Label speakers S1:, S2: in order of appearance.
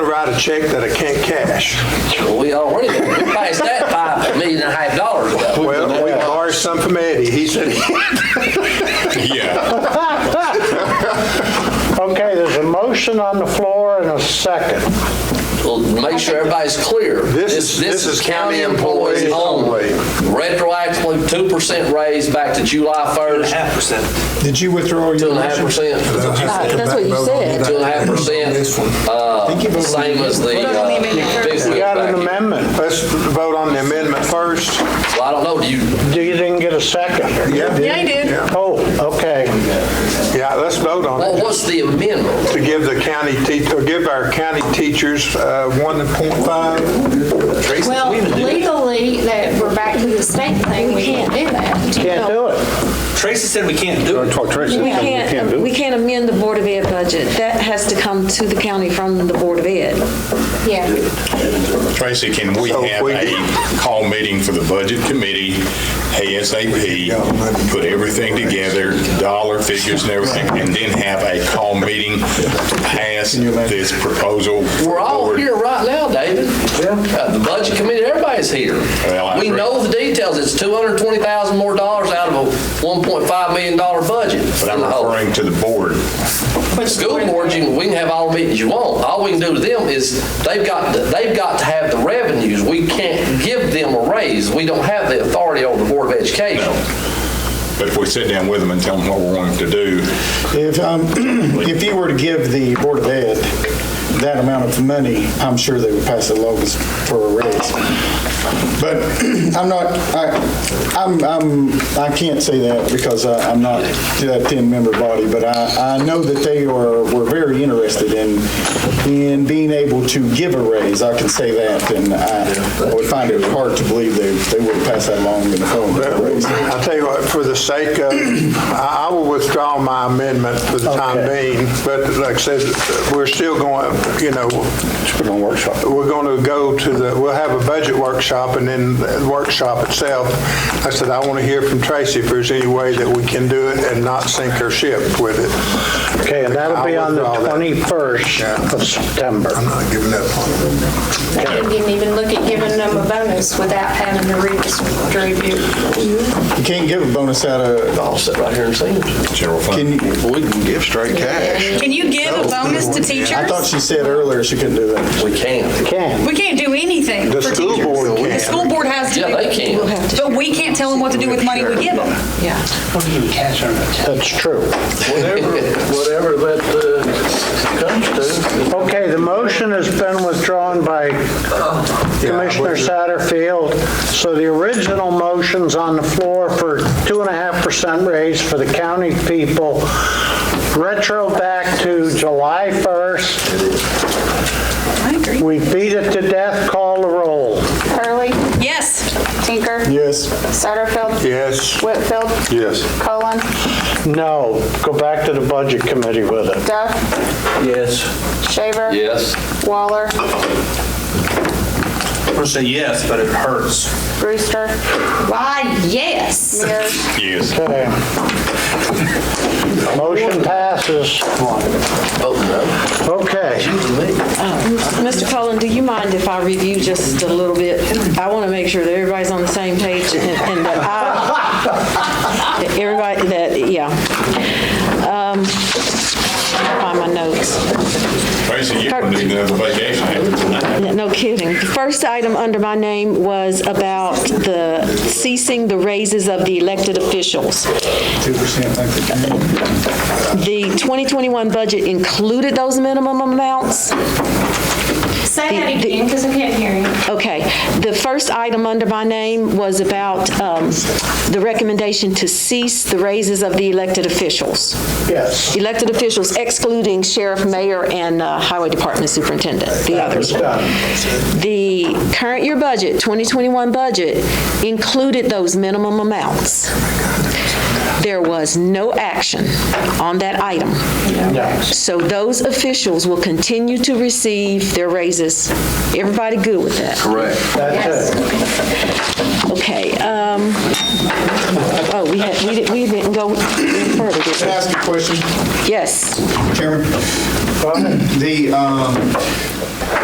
S1: write a check that I can't cash.
S2: We already, we passed that five million and a half dollars ago.
S1: Well, we borrowed some from Eddie. He said,
S3: Yeah.
S4: Okay, there's a motion on the floor and a second.
S2: We'll make sure everybody's clear.
S1: This is- this is county employees only.
S2: Retroactively, two percent raise back to July first,
S5: half percent.
S6: Did you withdraw your?
S2: two and a half
S6: motion?
S2: percent,
S7: That's what you said.
S2: two and a half percent,
S6: This one. Think you
S2: uh,
S6: voted on
S2: same as the.
S7: Voted on the amendment
S2: uh,
S7: first.
S2: fifth
S4: We
S2: wheel
S4: got
S2: back
S4: an
S2: in.
S4: amendment.
S1: let's vote on the amendment first.
S2: Well, I don't know, do you,
S4: You didn't get a second.
S7: Yeah, you did.
S1: Yeah,
S4: Oh, okay.
S1: Yeah, let's vote on
S2: well,
S1: it.
S2: what's the amendment?
S1: To give the county, te- or give our county teachers uh, 1.5.
S7: Well, legally, that we're back to the state thing, we can't do that.
S4: Can't do it.
S5: Tracy said we can't do it.
S7: We can't,
S8: We can't amend the Board of Ed budget. That has to come to the county from the Board of Ed.
S7: Yeah,
S3: Tracy, can we
S1: So if
S3: have
S1: we-
S3: a call meeting for the budget committee, ASAP, put everything together, dollar figures and everything, and then have a call meeting to pass this proposal?
S2: We're all
S3: forward?
S2: here right now, David. Uh, The budget committee, everybody's here.
S3: Well, I
S2: We
S3: agree.
S2: know the details, it's two hundred and twenty thousand more dollars out of a one point five million dollar budget.
S3: But I'm referring to the board.
S2: School board, you, we can have all the meetings you want. All we can do to them is, they've got, to- they've got to have the revenues. We can't give them a raise. We don't have the authority over the Board of Education.
S3: But if we sit down with them and tell them what we want them to do,
S6: If, um, if you were to give the Board of Ed that amount of money, I'm sure they would pass the lowest for a raise. But I'm not, I, I'm, I'm, I can't say that because I, I'm not to that ten-member body, but I, I know that they are, were very interested in, in being able to give a raise. I can say that, and I would find it hard to believe they, they would pass that along in the form of a raise.
S1: I'll tell you what, for the sake of, I I will withdraw my amendment for the time
S6: Okay.
S1: being, but like I said, we're still going, you know,
S6: Put on workshop.
S1: we're going to go to the, we'll have a budget workshop and then the workshop itself. I said, I want to hear from Tracy if there's any way that we can do it and not sink our ship with it.
S4: Okay, and that'll be on the
S1: I'll withdraw that.
S4: 21st of September.
S1: I'm not giving up on it.
S7: we didn't even look at giving them a bonus without having to read this review.
S6: You can't give a bonus out of,
S2: I'll sit right here and see them.
S3: general fund.
S6: can you,
S1: We can give straight cash.
S9: Can you give a bonus to
S6: I thought
S9: teachers?
S6: she said earlier she couldn't do that.
S2: We can't.
S4: Can.
S9: We can't do anything
S1: The
S9: for
S1: school
S9: teachers.
S1: board
S9: The
S1: can.
S9: school board has to
S2: Yeah, they
S9: do it.
S2: can.
S9: But we can't tell them what to do with money we give them.
S8: Yeah.
S4: That's true.
S10: Whatever, whatever that uh, comes to.
S4: Okay, the motion has been withdrawn by Commissioner Satterfield. So the original motion's on the floor for two and a half percent raise for the county people, retro back to July 1st.
S9: I agree.
S4: We beat it to death, call the roll.
S11: Hurley,
S9: Yes.
S11: Tinker,
S6: Yes,
S11: Satterfield,
S1: Yes.
S11: Whitfield,
S1: Yes.
S11: Colon,
S4: No, go back to the budget committee with it.
S11: Duff,
S10: Yes.
S11: Shaver,
S2: Yes.
S11: Waller,
S5: I'm gonna say yes, but it hurts.
S11: Brewster,
S9: Why, yes.
S11: Mears.
S3: Yes.
S4: Okay. Motion passes. Okay.
S8: Mr. Cullen, do you mind if I review just a little bit? I want to make sure that everybody's on the same page and and that I, that everybody, that, yeah. Um, Find my notes.
S3: Tracy, you're going to need another vacation after tonight.
S8: No kidding. The first item under my name was about the ceasing the raises of the elected officials.
S6: two percent, I think.
S8: The 2021 budget included those minimum amounts.
S11: Say that
S8: The- the-
S11: again, because I can't hear you.
S8: Okay, the first item under my name was about um, the recommendation to cease the raises of the elected officials.
S4: Yes.
S8: Elected officials excluding sheriff, mayor, and uh, highway department superintendent, the others. The current year budget, 2021 budget, included those minimum amounts. There was no action on that item. So those officials will continue to receive their raises. Everybody good with that?
S4: That's it.
S8: Okay, um, oh, we had, we didn't, we didn't go any further, did
S6: Can I
S8: we?
S6: ask you a question,
S8: Yes.
S6: Uh, Chairman? The, um,